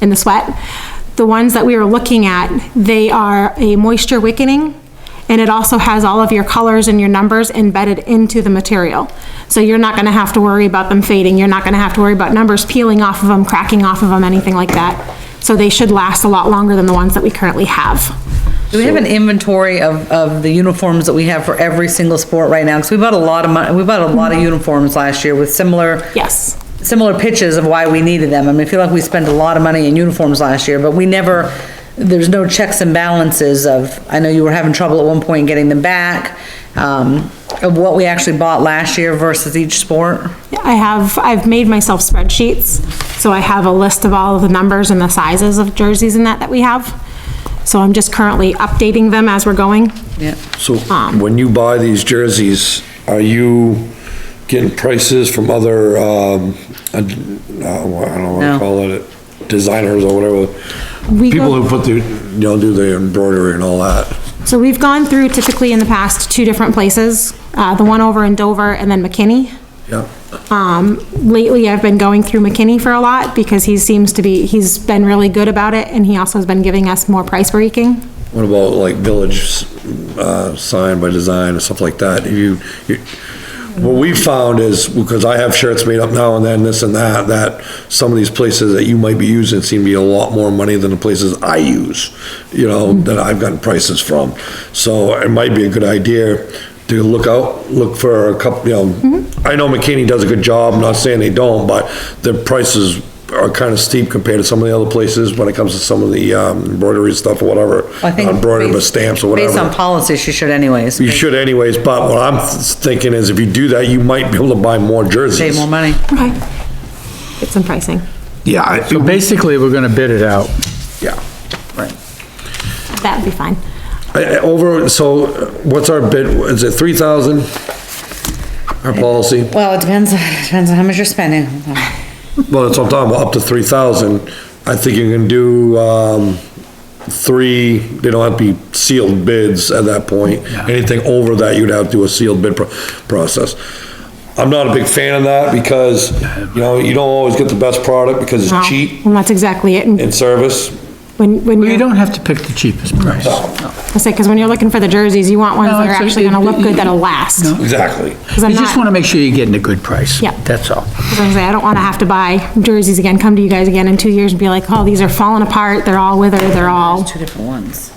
in the sweat. The ones that we were looking at, they are a moisture wickening, and it also has all of your colors and your numbers embedded into the material. So you're not gonna have to worry about them fading, you're not gonna have to worry about numbers peeling off of them, cracking off of them, anything like that. So they should last a lot longer than the ones that we currently have. Do we have an inventory of, of the uniforms that we have for every single sport right now? Because we bought a lot of money, we bought a lot of uniforms last year with similar. Yes. Similar pitches of why we needed them. I mean, I feel like we spent a lot of money in uniforms last year, but we never, there's no checks and balances of, I know you were having trouble at one point getting them back, um, of what we actually bought last year versus each sport. I have, I've made myself spreadsheets, so I have a list of all of the numbers and the sizes of jerseys and that that we have. So I'm just currently updating them as we're going. Yeah. So Ah. when you buy these jerseys, are you getting prices from other, um, uh, I don't know what No. to call it, designers or whatever? We People go- who put the, you know, do the embroidery and all that. So we've gone through typically in the past two different places, uh, the one over in Dover and then McKinney. Yeah. Um, lately, I've been going through McKinney for a lot because he seems to be, he's been really good about it and he also has been giving us more price breaking. What about like village, uh, sign by design and stuff like that? You, you, what we found is, because I have shirts made up now and then, this and that, that some of these places that you might be using seem to be a lot more money than the places I use, you know, Mm-hmm. that I've gotten prices from. So it might be a good idea to look out, look for a couple, you know, Mm-hmm. I know McKinney does a good job, I'm not saying they don't, but their prices are kind of steep compared to some of the other places when it comes to some of the um, embroidery stuff or whatever. I think Embroidered with based- stamps or whatever. Based on policy, she should anyways. You should anyways, but what I'm thinking is if you do that, you might be able to buy more Pay jerseys. more money. Okay. Get some pricing. Yeah, I- So basically, we're gonna bid it out. yeah. That'd be fine. I- I- Over, so uh, what's our bid, is it three thousand? Our policy, Well, it depends, depends on how much you're spending. well, that's what I'm talking about, up to three thousand. I think you can do, um, three, they don't have to be sealed bids at that point. Anything over that, you'd have to do a sealed bid pro- process. I'm not a big fan of that because, you know, you don't always get the best product because Wow. it's cheap And that's exactly it. And in service. when, when Well, you're- you don't have to pick the cheapest price. Oh, I say, because when you're looking for the jerseys, you want ones No, that are it's- actually gonna look good, that'll No. last. Exactly. 'Cause I'm You just not- wanna make sure you're getting a good price. Yeah. That's all. 'cause I'm saying, I don't wanna have to buy jerseys again, come to you guys again in two years and be like, oh, these are falling apart, they're all withered, they're all, Two different ones.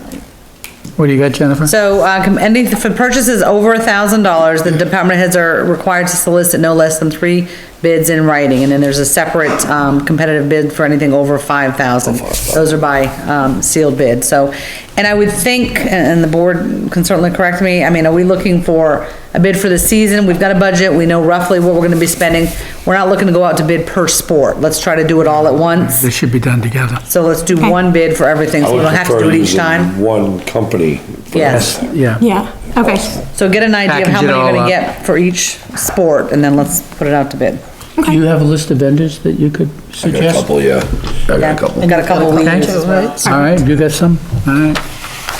What do you got, Jennifer? So, uh, com- any, for purchases over a thousand dollars, the department heads are required to solicit no less than three bids in writing, and then there's a separate, um, competitive bid for anything over five thousand. Those are by, um, sealed bid, so, and I would think, and- and the board can certainly correct me, I mean, are we looking for a bid for the season? We've got a budget, we know roughly what we're gonna be spending, we're not looking to go out to bid per sport, let's try to do it all at once, This should be done together. so let's do one bid for everything, so we don't have to do it each time. One company. Yes. Yeah. yeah, okay, So get an idea of how Package it many you're all gonna up. get for each sport, and then let's put it out to bid. Do you have a list of vendors that you could I got a suggest? couple, yeah. I got a I've couple. got a couple of leaders as well. All right, you got some? All right,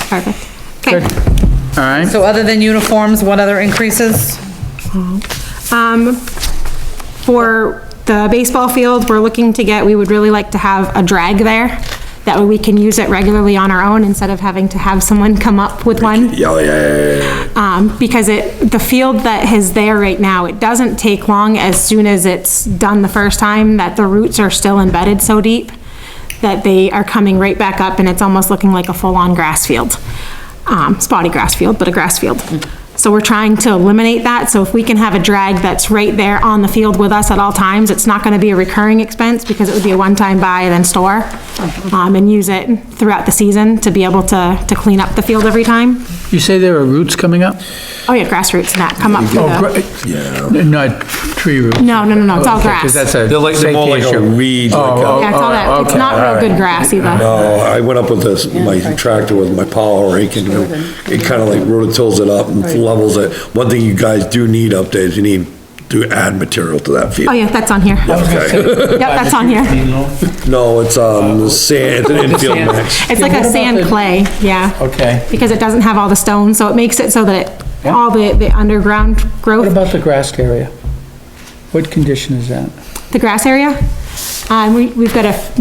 perfect. good. Okay, All right, So other than uniforms, what other increases? um, for the baseball field, we're looking to get, we would really like to have a drag there. That way we can use it regularly on our own instead of having to have someone come up with one. Yeah, yeah, yeah, yeah, um, because it, the field that is there right now, it doesn't take long as soon as it's done the first time that the roots are still embedded so deep that they are coming right back up and it's almost looking like a full-on grass field. Um, spotty grass field, but a grass field. So we're trying to eliminate that, so if we can have a drag that's right there on the field with us at all times, it's not gonna be a recurring expense because it would be a one-time buy and then store. Um, and use it throughout the season to be able to, to clean up the field every time. you say there are roots coming up? Oh yeah, grassroots and that come up. Oh, through the- great. yeah. Not tree roots? No, no, no, no, it's all Because grass. that's Yeah, a They're like- they're more safety like a issue. weed, like Oh, a- oh, it's all oh, that, it's okay, not real all right. good grass either. No, oh. I went up with this, my tractor with my power rake and it kind of like rototills it up and levels it. One thing you guys do need updates, you need to add material to that Oh field. yeah, that's on here. Yep, Okay. that's on here. No, it's, um, sand, it's an infield mix. It's like what a about sand the- clay, yeah. Okay. Because it doesn't have all the stones, so it makes it so that it- Yeah. all the, the underground What growth, about the grass area? What condition is that? the grass area. Uh, we, we've got a